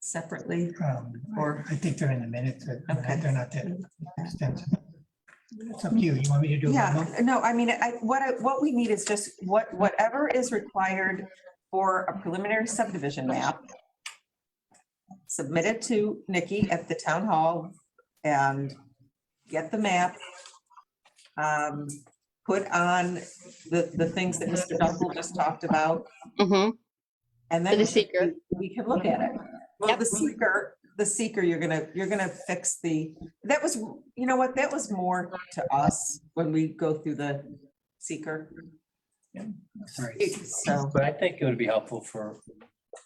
separately? Um, or I think they're in the minutes, but Okay. they're not that extensive. It's up to you. You want me to do it? Yeah, no, I mean, I, what, I- what we need is just what, whatever is required for a preliminary subdivision map. Submit it to Nikki at the town hall and get the map. Um, put on the, the things that Mr. Dunkel just talked about Mm-hmm. and then. For the seeker. We can look at it. Well, Yep. the seeker, the seeker, you're gonna, you're gonna fix the, that was, you know what, that was more to us when we go through the seeker. Sorry. So, But I think it would be helpful for,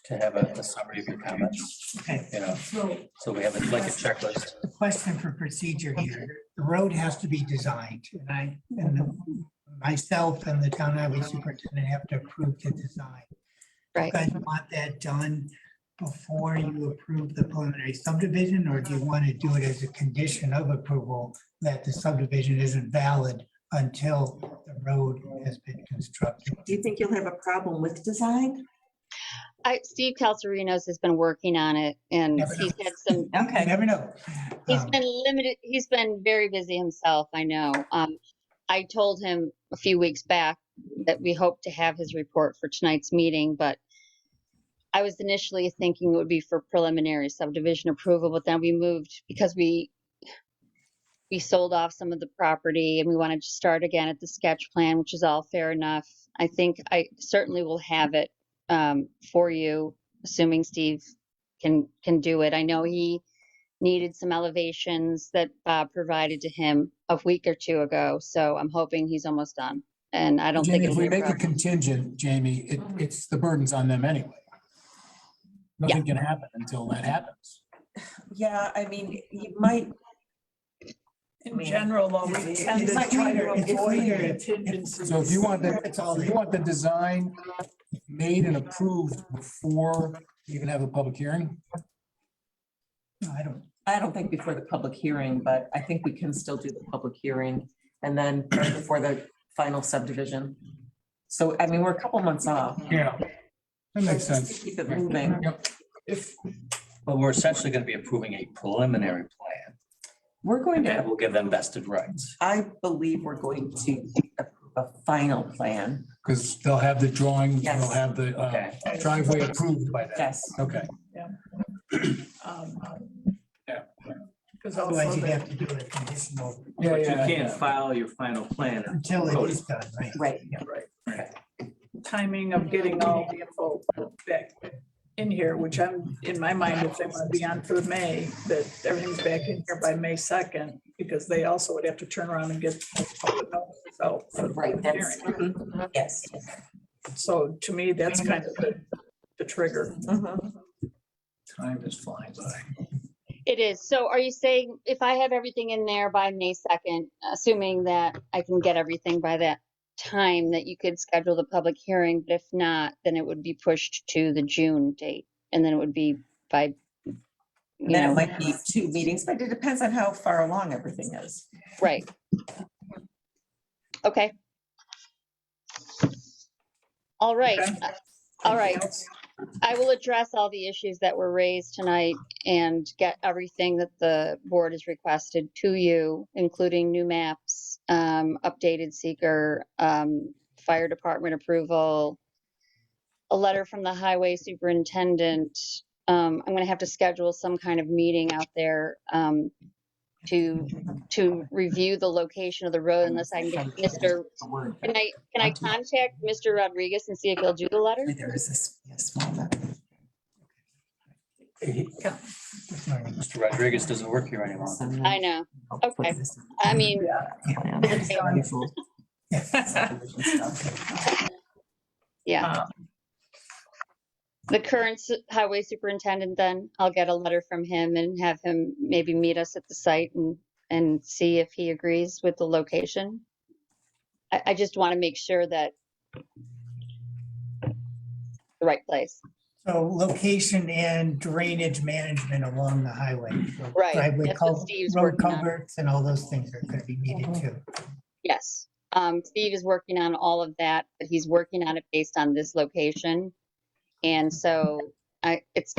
to have a a summary of your comments, Okay. you know, So so we have it like a checklist. the question for procedure here, the road has to be designed and I, and the- myself and the town highway superintendent have to approve the design. You Right. guys want that done before you approve the preliminary subdivision, or do you want to do it as a condition of approval that the subdivision isn't valid until the road has been constructed? do you think you'll have a problem with design? I, Steve Calcerinos has been working on it and Never know. he's had some, You Okay, never know. he's Um, been limited, he's been very busy himself, I know. Um, I told him a few weeks back that we hope to have his report for tonight's meeting, but I was initially thinking it would be for preliminary subdivision approval, but then we moved because we we sold off some of the property and we wanted to start again at the sketch plan, which is all fair enough. I think I certainly will have it um, for you, assuming Steve can can do it. I know he needed some elevations that Bob provided to him a week or two ago, so I'm hoping he's almost done. And I don't think Jamie, if it'll we be a make a problem. contingent, Jamie, it, it's, the burden's on them anyway. Nothing can happen until that happens. yeah, I mean, you might, In general, though, we It's- tend to it's try to either- it's avoid either- contingencies. So if you want the, That's all if you want the design made and approved before you even have a public hearing, no, I don't, I don't think before the public hearing, but I think we can still do the public hearing and then before the final subdivision. So, I mean, we're a couple months off. yeah, that makes sense. Keep it Mm-hmm. moving. If, But we're essentially going to be approving a preliminary plan We're going that to, will give them vested rights. I believe we're going to approve a final plan. because they'll have the drawing, Yes. they'll have the uh, Okay. driveway approved by that. Yes. Okay. um, Because otherwise you'd have to do it conditional But you can't file your final plan. until it is done, right? Right. timing of getting all the info back in here, which I'm, in my mind, if they want to be on for May, that everything's back in here by May second, because they also would have to turn around and get public notices out. for the Right, that's, hearing. mhm, yes. So to me, that's kind of the, the trigger. mhm. Time is flying by. It is. So are you saying if I have everything in there by May 2nd, assuming that I can get everything by that time, that you could schedule the public hearing, but if not, then it would be pushed to the June date? And then it would be by, you And Then it know, might be two meetings, but it depends on how far along everything is. right. Okay. All right. Okay. Uh, All right. Anything else? I will address all the issues that were raised tonight and get everything that the board has requested to you, including new maps, um, updated seeker, um, fire department approval, a letter from the highway superintendent. Um, I'm gonna have to schedule some kind of meeting out there, um, to, to review the location of the road unless I can get Mr. Can I, can I contact Mr. Rodriguez and see if he'll do the letter? There is this a small. Mr. Rodriguez doesn't work here anymore. I know. Okay. I mean, yeah. Uh, The current s- highway superintendent, then I'll get a letter from him and have him maybe meet us at the site and, and see if he agrees with the location. I, I just want to make sure that the right place. So location and drainage management along the highway. So Right, driveway that's what cul- Steve's Road working on. culverts and all those things are gonna be needed too. Yes. Um, Steve is working on all of that, but he's working on it based on this location. And so I, it's